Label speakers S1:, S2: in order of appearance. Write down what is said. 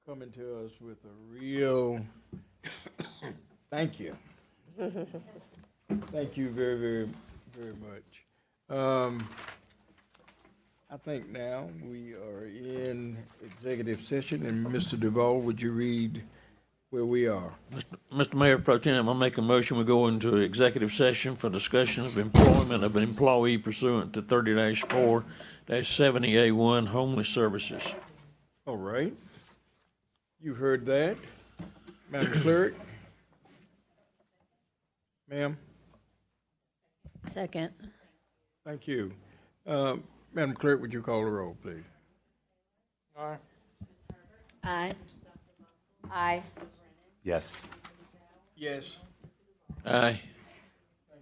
S1: coming to us with a real, thank you. Thank you very, very, very much. Um, I think now we are in executive session, and Mr. Duval, would you read where we are?
S2: Mr. Mayor Pro Tem, I make a motion, we go into executive session for discussion of employment of an employee pursuant to thirty four seventy A one homeless services.
S1: All right. You heard that. Madam Clerk? Ma'am?
S3: Second.
S1: Thank you. Uh, Madam Clerk, would you call the roll, please?
S3: Aye. Aye.
S4: Yes.
S1: Yes.
S2: Aye.